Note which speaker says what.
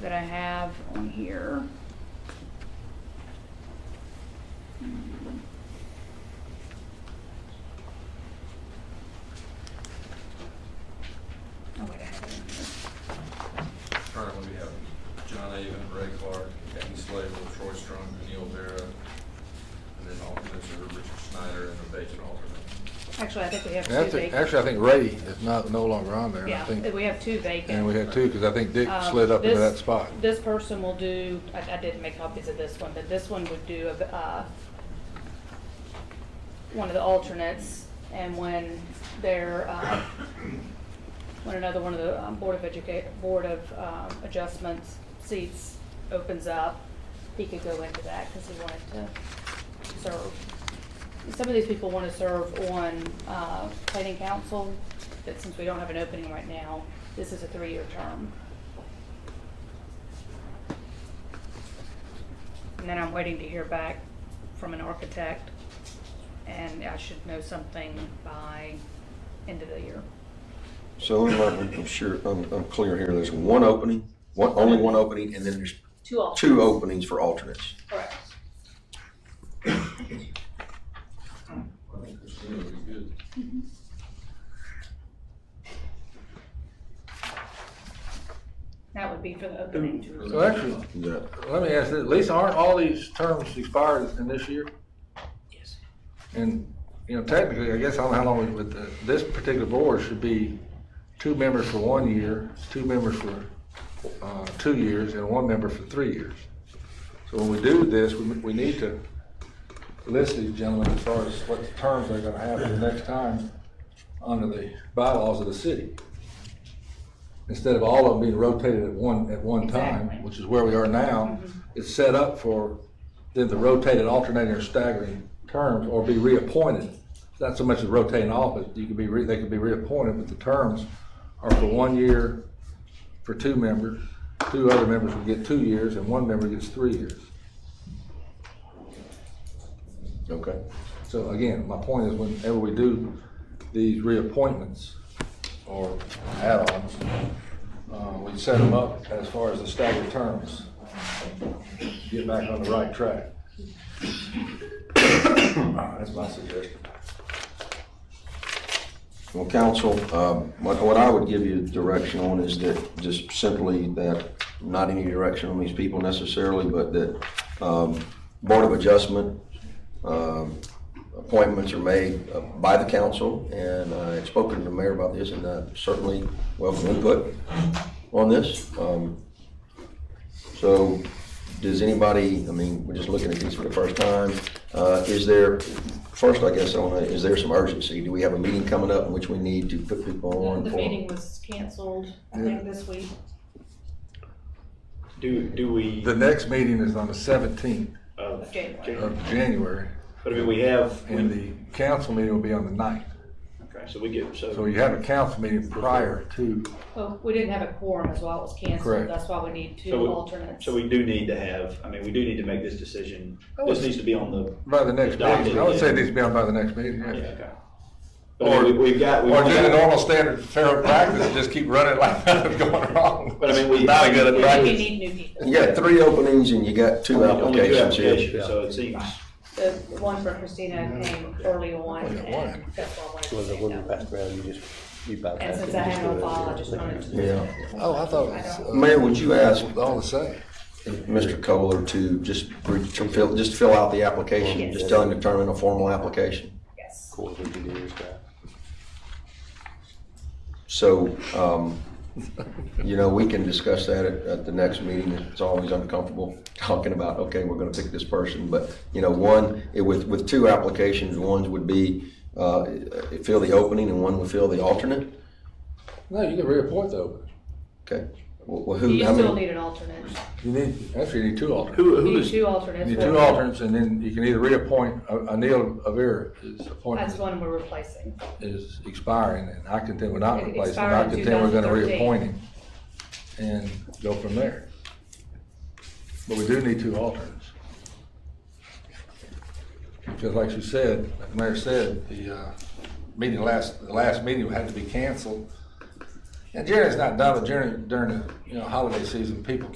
Speaker 1: that I have on here. Oh, wait, I have it in here.
Speaker 2: Currently, we have John Avon, Ray Clark, Kenny Slater, Troy Strong, Neil Vera, and then alternates are Richard Snyder and a vacant alternate.
Speaker 1: Actually, I think we have
Speaker 3: And I
Speaker 1: two
Speaker 3: think-
Speaker 1: vacant.
Speaker 3: Actually, I think Ray is not, no longer on there. I
Speaker 1: Yeah,
Speaker 3: think-
Speaker 1: we have two vacant.
Speaker 3: And we had two, because I think Dick
Speaker 1: Um,
Speaker 3: slid up into
Speaker 1: this-
Speaker 3: that spot.
Speaker 1: This person will do, I, I didn't make copies of this one, but this one would do, uh, one of the alternates, and when they're, uh, when another one of the um, Board of Educa, Board of, um, Adjustments seats opens up, he could go into that, because he wanted to serve. Some of these people want to serve on, uh, planning council, but since we don't have an opening right now, this is a three-year term. And then I'm waiting to hear back from an architect, and I should know something by end of the year.
Speaker 4: So I'm I'm sure, I'm, I'm clear here, there's one opening, one, only one opening, and then there's
Speaker 1: Two alternates.
Speaker 4: two openings for alternates.
Speaker 1: Correct.
Speaker 2: I think Christina would be good.
Speaker 1: That would be for the opening. to-
Speaker 3: So actually,
Speaker 4: Is that-
Speaker 3: let me ask this, Lisa, aren't all these terms expired in this year?
Speaker 1: Yes.
Speaker 3: And, you know, technically, I guess, I don't know how long, but the- this particular board should be two members for one year, two members for, uh, two years, and one member for three years. So when we do this, we, we need to list these gentlemen as far as what terms they're gonna have for the next time under the bylaws of the city. Instead of all of them being rotated at one, at one
Speaker 1: Exactly.
Speaker 3: time, which is where we are now, it's set up for them to rotate and alternating or staggering terms or be reappointed. It's Not so much as rotating office, you could be, re- they could be reappointed, but the terms are for one year for two members, two other members will get two years, and one member gets three years.
Speaker 4: Okay.
Speaker 3: So again, my point is whenever we do these reappointments or add-ons, uh, we set them up as far as the staggered terms. Get back on the right track. Ah, That's my suggestion.
Speaker 4: Well, council, um, what, what I would give you direction on is that, just simply that, not any direction on these people necessarily, but that, um, Board of Adjustment, um, appointments are made uh, by the council, and I had spoken to the mayor about this, and I certainly welcome input on this. Um, So, does anybody, I mean, we're just looking at these for the first time, Uh, is there, first, I guess, I wanna, is there some urgency? Do we have a meeting coming up in which we need to put people on?
Speaker 1: The
Speaker 4: for-
Speaker 1: meeting was canceled, I think, this week.
Speaker 5: Do, do we,
Speaker 3: The next meeting is on the seventeenth
Speaker 5: uh,
Speaker 1: January.
Speaker 5: January.
Speaker 3: of January,
Speaker 5: but I mean, we have, we-
Speaker 3: and the council meeting will be on the ninth.
Speaker 5: okay, so we get,
Speaker 3: So
Speaker 5: so,
Speaker 3: you have a council meeting prior to,
Speaker 1: Well, we didn't have a quorum as well, it was canceled,
Speaker 3: Correct.
Speaker 1: that's why we need
Speaker 5: So
Speaker 1: two
Speaker 5: we-
Speaker 1: alternates.
Speaker 5: so we do need to have, I mean, we do need to make this decision.
Speaker 3: Oh,
Speaker 5: This
Speaker 3: it's-
Speaker 5: needs to be on the,
Speaker 3: by the next meeting. I would say it needs to be on by the next meeting,
Speaker 5: yeah,
Speaker 3: yeah.
Speaker 5: okay. But I mean, we- we've got, we've
Speaker 3: Or do the
Speaker 5: got,
Speaker 3: normal standard fair practice, just keep running like nothing's going wrong.
Speaker 5: But I mean, we-
Speaker 3: Not a good
Speaker 1: I think you
Speaker 3: practice.
Speaker 1: need new people.
Speaker 4: You got three openings and you got two
Speaker 5: only two
Speaker 4: applications here.
Speaker 5: applications, so it seems,
Speaker 1: The one for Christina came early on, and that's why I wanted to
Speaker 6: was a
Speaker 1: take
Speaker 6: women
Speaker 1: that.
Speaker 6: background, you just, you bypassed it.
Speaker 1: And since I have no file, I just wanted to.
Speaker 4: Yeah.
Speaker 3: Oh, I thought
Speaker 4: Mayor, would you ask
Speaker 3: all the same.
Speaker 4: Mr. Kohler to just, re- to fill, just fill out the application,
Speaker 1: Yes.
Speaker 4: just tell him to turn in a formal application?
Speaker 1: Yes.
Speaker 6: Cool, we can do this guy.
Speaker 4: So, um, you know, we can discuss that at, at the next meeting. It's always uncomfortable talking about, okay, we're gonna pick this person, but, you know, one, it- with, with two applications, one would be, uh, fill the opening and one would fill the alternate?
Speaker 3: No, you can reappoint though.
Speaker 4: Okay. Well,
Speaker 1: Do
Speaker 4: who,
Speaker 1: you
Speaker 4: how
Speaker 1: still
Speaker 4: many?
Speaker 1: need an alternate?
Speaker 3: You need, actually, you need two alternates.
Speaker 5: who,
Speaker 1: You
Speaker 5: who
Speaker 1: need
Speaker 5: is,
Speaker 1: two alternates.
Speaker 3: You need
Speaker 1: but
Speaker 3: two alternates, and then you can either reappoint, uh, Anil Avira is
Speaker 1: That's
Speaker 3: appointed,
Speaker 1: one we're replacing.
Speaker 3: is expiring, and I contend we're not
Speaker 1: It
Speaker 3: replacing him. I
Speaker 1: expired in
Speaker 3: contend we're gonna
Speaker 1: 2013.
Speaker 3: reappoint him and go from there. But we do need two alternates. Because like you said, like the mayor said, the, uh, meeting last, the last meeting had to be canceled. And January's not done, but during, during the, you know, holiday season, people